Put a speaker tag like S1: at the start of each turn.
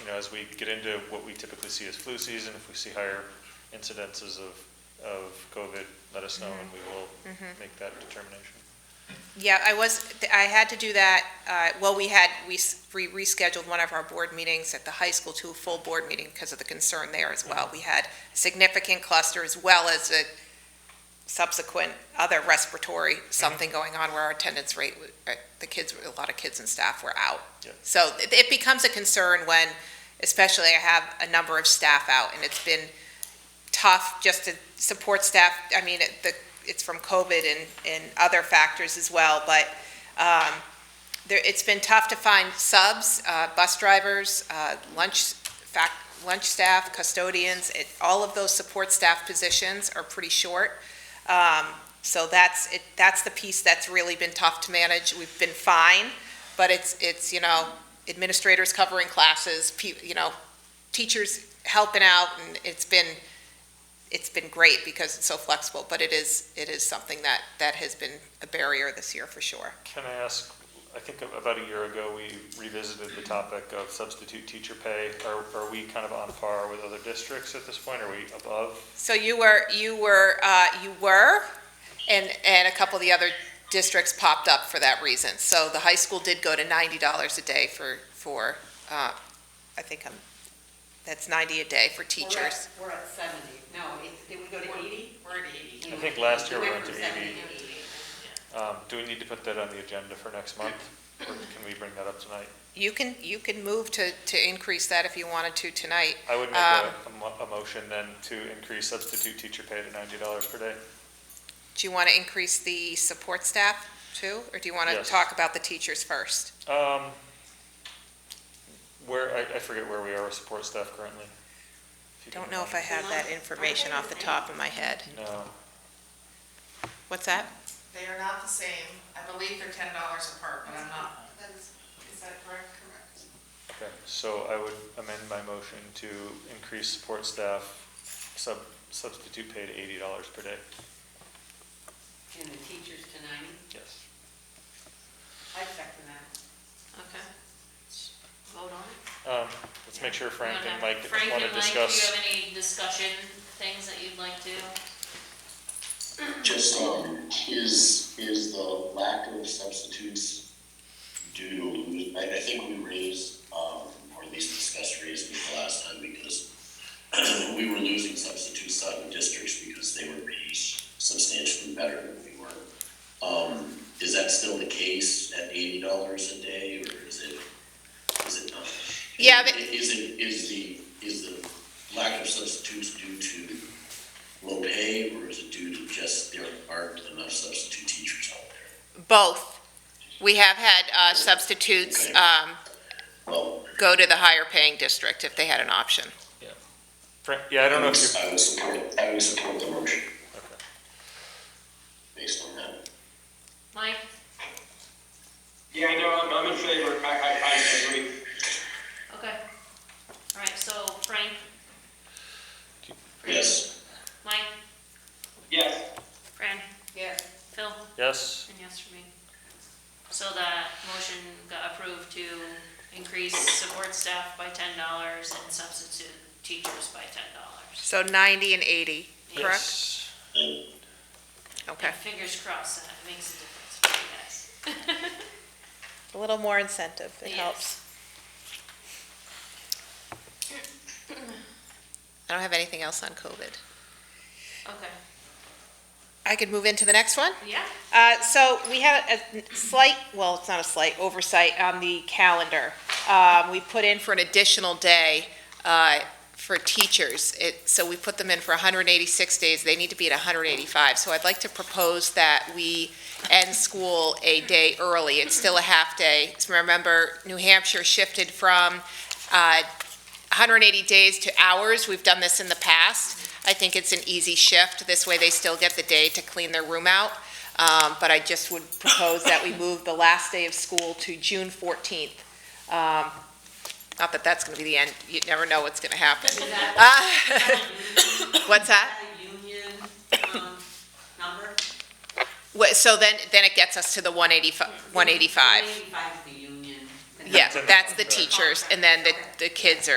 S1: you know, as we get into what we typically see as flu season, if we see higher incidences of, of COVID, let us know and we will make that determination.
S2: Yeah, I was, I had to do that, uh, well, we had, we s- we rescheduled one of our board meetings at the high school to a full board meeting because of the concern there as well. We had significant cluster as well as a subsequent other respiratory, something going on where our attendance rate, wa- uh, the kids, a lot of kids and staff were out.
S1: Yeah.
S2: So it- it becomes a concern when, especially I have a number of staff out and it's been tough just to support staff. I mean, it- the it's from COVID and, and other factors as well, but um, there, it's been tough to find subs, uh, bus drivers, uh, lunch, fac lunch staff, custodians, it, all of those support staff positions are pretty short. Um, So that's, it, that's the piece that's really been tough to manage. We've been fine, but it's, it's, you know, administrators covering classes, pe- you know, teachers helping out, and it's been, it's been great because it's so flexible, but it is, it is something that, that has been a barrier this year for sure.
S1: Can I ask, I think about a year ago, we revisited the topic of substitute teacher pay. Are, are we kind of on par with other districts at this point? Are we above?
S2: So you were, you were, uh, you were, and, and a couple of the other districts popped up for that reason. So the high school did go to ninety dollars a day for, for, uh, I think I'm, that's ninety a day for teachers.
S3: We're at seventy, no, it- did we go to eighty? We're at eighty.
S1: I think last year we went to 80.
S3: 70 80.
S1: Um, do we need to put that on the agenda for next month? Or can we bring that up tonight?
S2: You can, you can move to, to increase that if you wanted to tonight.
S1: I would make
S2: Um,
S1: a, a mo- a motion then to increase substitute teacher pay to ninety dollars per day.
S2: Do you want to increase the support staff too, or do you want to
S1: Yes.
S2: talk about the teachers first?
S1: Um, where, I, I forget where we are with support staff currently. If you can
S2: Don't know if I
S1: remind
S2: have that information off the top of my head.
S1: me. No,
S2: What's that?
S4: They are not the same. I believe they're ten dollars apart, but I'm not. Is that correct? Correct.
S1: okay, so I would amend my motion to increase support staff sub, substitute pay to eighty dollars per day.
S3: And the teachers to ninety,
S1: Yes.
S3: I second that. Okay. Vote on it.
S1: Um, let's make sure Frank and Mike
S5: Frank
S1: want
S5: and
S1: to
S5: Mike, do you
S1: discuss.
S5: have any discussion things that you'd like to?
S6: Just, um, is, is the lack of substitutes due to, lose- I, I think we raised, um, or at least discussed raising it the last time because we were losing substitutes out of districts because they were paid substantially better than we were. Um, is that still the case at eighty dollars a day or is it, is it not?
S2: Yeah, but-
S6: Is it, is the, is the lack of substitutes due to low pay, or is it due to just there aren't enough substitute teachers out there?
S2: Both. We have had uh, substitutes um,
S6: Well,
S2: go to the higher paying district if they had an option.
S1: Frank, yeah, I don't know if you're,
S6: I would support, I would support the motion
S1: okay.
S6: based on that.
S5: Mike,
S7: Yeah, I know, I'm, I'm in favor, I, I, I agree.
S5: okay. All right, so Frank,
S6: Yes,
S5: Mike,
S7: Yes.
S5: Fran,
S3: Yes.
S5: Phil, and
S1: Yes,
S5: yes for me. So that motion got approved to increase support staff by ten dollars and substitute teachers by ten dollars.
S2: So 90 and 80, correct?
S1: yes.
S2: Okay.
S5: Fingers crossed, that it makes a difference for you guys.
S2: A little more incentive,
S5: Yes. helps.
S2: I don't have anything else on COVID.
S5: Okay,
S2: I could move into the next one?
S5: yeah,
S2: Uh, so we had a slight, well, it's not a slight oversight on the calendar. Um, we put in for an additional day, uh, for teachers. It, so we put them in for hundred and eighty-six days. They need to be at hundred and eighty-five. So I'd like to propose that we end school a day early. It's still a half day. So Remember, New Hampshire shifted from, uh, hundred and eighty days to hours. We've done this in the past. I think it's an easy shift. This way they still get the day to clean their room out. Um, but I just would propose that we move the last day of school to June fourteenth. Um, not that that's gonna be the end, you never know what's gonna happen.
S3: Is that,
S2: Uh, What's
S3: is
S2: that?
S3: that a union, um, number?
S2: Wha- So then, then it gets us to the one eighty-five, one eighty-five.
S3: Eighty-five is the union.
S2: Yeah, that's the
S1: That's in the
S2: teachers, and then the, the kids are